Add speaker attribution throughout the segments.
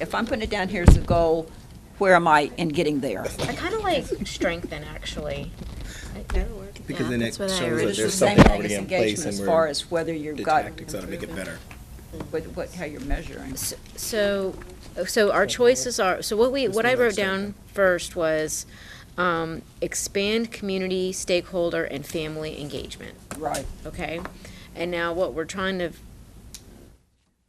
Speaker 1: if I'm putting it down here as a goal, where am I in getting there?
Speaker 2: I kind of like strengthen, actually.
Speaker 3: Because then it
Speaker 2: that's what I
Speaker 3: shows that
Speaker 2: originally-
Speaker 3: there's
Speaker 2: Same
Speaker 3: something
Speaker 1: thing
Speaker 3: already
Speaker 1: as
Speaker 3: in
Speaker 1: engagement
Speaker 3: place and
Speaker 1: As far
Speaker 3: we're,
Speaker 1: as whether you've
Speaker 3: the
Speaker 1: got,
Speaker 3: tactics ought to make it better.
Speaker 1: what, what, how you're measuring.
Speaker 2: So, so our choices are, so what we, what I wrote down first was, um, expand community stakeholder and family engagement,
Speaker 1: Right.
Speaker 2: okay? And now what we're trying to,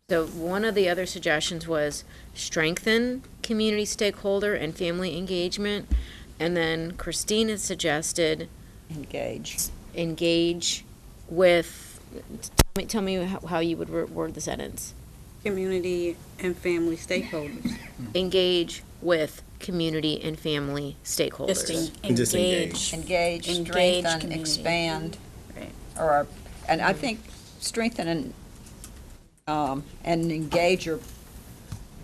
Speaker 2: so one of the other suggestions was strengthen community stakeholder and family engagement. And then Christina suggested
Speaker 1: Engage.
Speaker 2: engage with, tell me, tell me how how you would wor- word the sentence.
Speaker 4: Community and family stakeholders.
Speaker 2: Hmm. engage with community and family stakeholders.
Speaker 3: And just engage.
Speaker 1: Engage,
Speaker 5: Engage
Speaker 1: strengthen,
Speaker 5: community.
Speaker 1: expand.
Speaker 5: Right.
Speaker 1: Or, and I think strengthen and, um, and engage are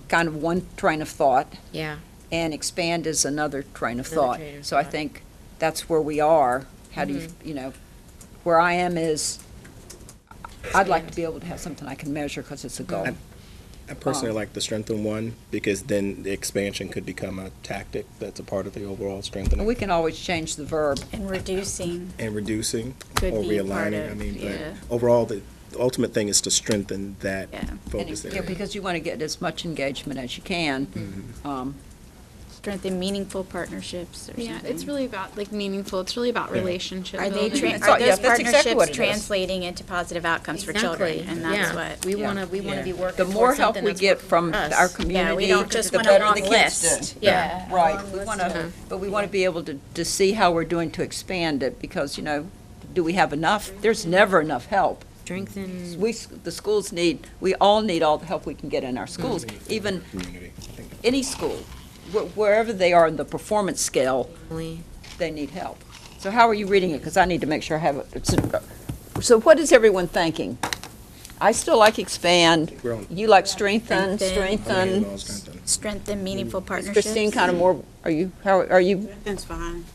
Speaker 1: kind of one train of thought.
Speaker 2: Yeah,
Speaker 1: and expand is another train of
Speaker 2: Another
Speaker 1: thought.
Speaker 2: train of
Speaker 1: So I
Speaker 2: thought. Mm-hmm.
Speaker 1: think that's where we are. How do you, you know, where I am is, I'd like to be able to have something I can measure because it's a goal.
Speaker 3: I personally like the strengthen one because then the expansion could become a tactic that's a part of the overall
Speaker 1: And we
Speaker 3: strengthening
Speaker 1: can always change the verb.
Speaker 5: And reducing,
Speaker 3: and reducing
Speaker 2: Could
Speaker 3: or
Speaker 2: be part
Speaker 3: realigning. I
Speaker 2: of-
Speaker 3: mean,
Speaker 2: yeah.
Speaker 3: but overall, the the ultimate thing is to strengthen that
Speaker 5: Yeah.
Speaker 1: and-
Speaker 3: focus
Speaker 1: yeah,
Speaker 3: area.
Speaker 1: Because you want to get as much engagement as you can. Um,
Speaker 5: strengthen meaningful partnerships or something.
Speaker 6: Yeah, it's really about like meaningful. It's really about relationship.
Speaker 5: Are they,
Speaker 6: building.
Speaker 5: tra-
Speaker 1: That's all-
Speaker 5: are
Speaker 1: yeah,
Speaker 5: those
Speaker 1: that's exactly what
Speaker 5: partnerships
Speaker 1: it is.
Speaker 5: translating into positive outcomes for
Speaker 2: exactly.
Speaker 5: children? And that's
Speaker 2: Yeah.
Speaker 5: what.
Speaker 2: We want to, we want to be
Speaker 1: The
Speaker 2: working
Speaker 1: more
Speaker 2: towards
Speaker 1: help
Speaker 2: something
Speaker 1: we
Speaker 2: that's
Speaker 1: get
Speaker 2: working
Speaker 1: from
Speaker 2: for
Speaker 1: our
Speaker 2: us.
Speaker 5: Yeah, we
Speaker 1: community,
Speaker 5: don't just
Speaker 1: the
Speaker 5: want a
Speaker 1: better
Speaker 5: long
Speaker 1: the kids
Speaker 5: list.
Speaker 1: do.
Speaker 2: Yeah.
Speaker 1: Right, we want to, but we want to be able to, to see how we're doing to expand it because, you know, do we have enough?
Speaker 2: Mm-hmm.
Speaker 1: There's never enough help.
Speaker 2: Strengthen,
Speaker 1: We, s- the schools need, we all need all the help we can get in our schools,
Speaker 3: Mm-hmm.
Speaker 1: even
Speaker 3: Community. I think
Speaker 1: any school, wh- wherever they are in the performance scale,
Speaker 2: family.
Speaker 1: they need help. So how are you reading it? Because I need to make sure I have it. It's- uh, So what is everyone thinking? I still like expand,
Speaker 3: we're on-
Speaker 1: you like strengthen,
Speaker 3: I'm
Speaker 5: Strengthen.
Speaker 3: getting
Speaker 1: strengthen.
Speaker 3: all strengthen.
Speaker 5: Strengthen meaningful partnerships.
Speaker 1: Mm. Christine, kind of more, are you, how, are you,
Speaker 4: That's fine.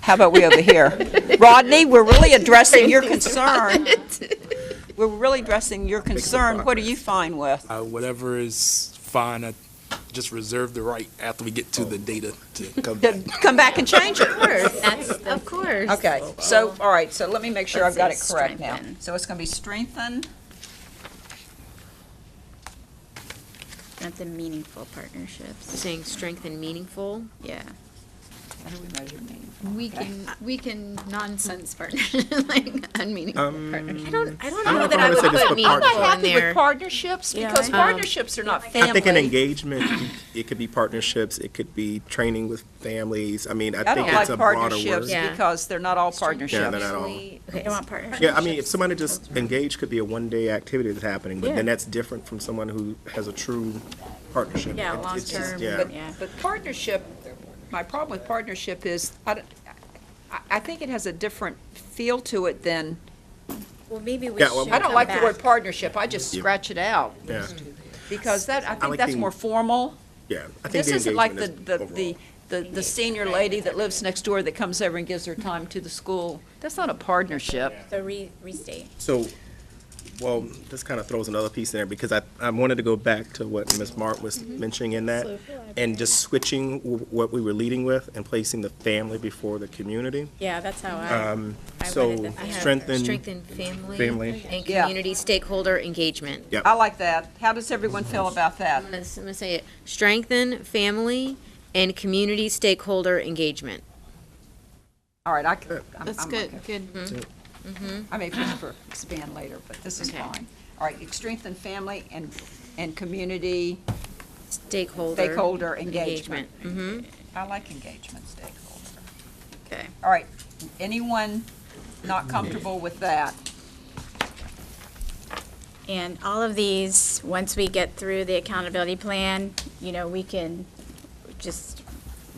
Speaker 1: how about we over here? Rodney, we're really addressing your concern. We're really addressing your concern. What are you fine with?
Speaker 7: Uh, whatever is fine, I just reserve the right after we get to the data to come back.
Speaker 1: to come back and change it.
Speaker 2: That's, of course.
Speaker 1: Okay, so, all right, so let me make sure I've got it
Speaker 5: Let's say
Speaker 1: correct now.
Speaker 5: strengthen.
Speaker 1: So it's going to be strengthen,
Speaker 5: Strengthen meaningful partnerships.
Speaker 2: Saying strengthen meaningful.
Speaker 5: Yeah.
Speaker 1: how do we measure meaning?
Speaker 6: We can we can nonsense partnership like unmeaningful partnership.
Speaker 2: I don't, Um, I don't
Speaker 3: I
Speaker 2: know
Speaker 3: don't
Speaker 2: that
Speaker 3: know
Speaker 2: I
Speaker 3: if
Speaker 2: would
Speaker 3: I would say this
Speaker 2: put
Speaker 3: is
Speaker 2: meaningful in
Speaker 1: Happy with
Speaker 2: there.
Speaker 1: partnerships, because partnerships are not
Speaker 3: I think in
Speaker 1: family.
Speaker 3: engagement, it could be partnerships, it could be training with families. I mean, I
Speaker 1: I
Speaker 3: think
Speaker 1: don't
Speaker 3: it's
Speaker 1: like
Speaker 3: a broader
Speaker 1: partnerships
Speaker 3: word.
Speaker 2: Yeah.
Speaker 1: because they're not all
Speaker 3: Yeah, they're
Speaker 1: partnerships.
Speaker 3: not all.
Speaker 5: We don't want partnerships.
Speaker 3: Yeah, I mean, if somebody just engaged could be a one-day activity that's happening, but
Speaker 2: Yeah.
Speaker 3: then that's different from someone who has a true partnership.
Speaker 5: Yeah,
Speaker 3: It- it's just-
Speaker 5: long-term,
Speaker 3: yeah.
Speaker 1: But,
Speaker 5: Yeah.
Speaker 1: but partnership, my problem with partnership is, I, don't- I- I think it has a different feel to it than,
Speaker 2: Well, maybe we
Speaker 3: Yeah, well-
Speaker 2: should
Speaker 1: I don't like the
Speaker 2: come
Speaker 1: word
Speaker 2: back.
Speaker 1: partnership, I just scratch it out,
Speaker 3: Yeah,
Speaker 1: because that, I think
Speaker 3: like
Speaker 1: that's
Speaker 3: the-
Speaker 1: more formal.
Speaker 3: yeah. I think
Speaker 1: This
Speaker 3: the
Speaker 1: isn't like the,
Speaker 3: engagement
Speaker 1: the,
Speaker 3: is
Speaker 1: the, the
Speaker 3: overall.
Speaker 1: the senior lady that lives next door that comes over and gives her time to the school. That's not a partnership.
Speaker 5: So re, restate.
Speaker 3: So, well, this kind of throws another piece in there because I, I wanted to go back to what Ms. Mark was mentioning in that and just switching w- what we were leading with and placing the family before the community.
Speaker 5: Yeah, that's how I.
Speaker 1: Um,
Speaker 5: I wanted
Speaker 3: So
Speaker 5: the family.
Speaker 3: strengthen,
Speaker 2: Strengthen family.
Speaker 3: Family.
Speaker 2: And
Speaker 1: Yeah.
Speaker 2: community stakeholder engagement.
Speaker 3: Yep.
Speaker 1: I like that. How does everyone feel about that?
Speaker 2: I'm gonna, I'm gonna say it. Strengthen family and community stakeholder engagement.
Speaker 1: All right, I, c- I'm,
Speaker 6: That's
Speaker 1: I'm
Speaker 6: good.
Speaker 1: okay.
Speaker 6: Good.
Speaker 1: I may push for expand later, but this is
Speaker 2: Okay.
Speaker 1: fine. All right, strengthen family and, and community
Speaker 2: Stakeholder.
Speaker 1: stakeholder engagement. I like engagement stakeholder.
Speaker 5: Okay.
Speaker 1: All right, anyone not comfortable with that?
Speaker 5: And all of these, once we get through the accountability plan, you know, we can just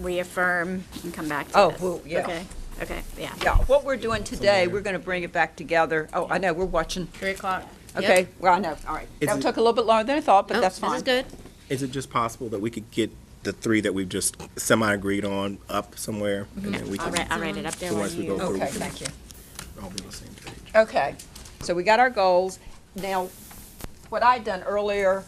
Speaker 5: reaffirm and come back to
Speaker 1: Oh,
Speaker 5: this.
Speaker 1: well, yeah.
Speaker 5: Okay, okay, yeah.
Speaker 1: Yeah, what we're doing today, we're gonna bring it back together. Oh, I know, we're watching.
Speaker 2: Three o'clock. Yep.
Speaker 1: Okay, well, I know, all right.
Speaker 3: Is
Speaker 1: That
Speaker 3: it-
Speaker 1: took a little bit longer than I thought, but
Speaker 2: Nope,
Speaker 1: that's fine.
Speaker 2: Oh, This is good.
Speaker 3: is it just possible that we could get the three that we've just semi-agreed on up somewhere? And then we
Speaker 5: I'll
Speaker 3: can,
Speaker 5: write, I'll write it up there while
Speaker 3: once we
Speaker 5: you.
Speaker 3: go through, we
Speaker 1: Okay,
Speaker 3: can
Speaker 1: thank you.
Speaker 3: all be on the same page.
Speaker 1: Okay, so we got our goals. Now, what I'd done earlier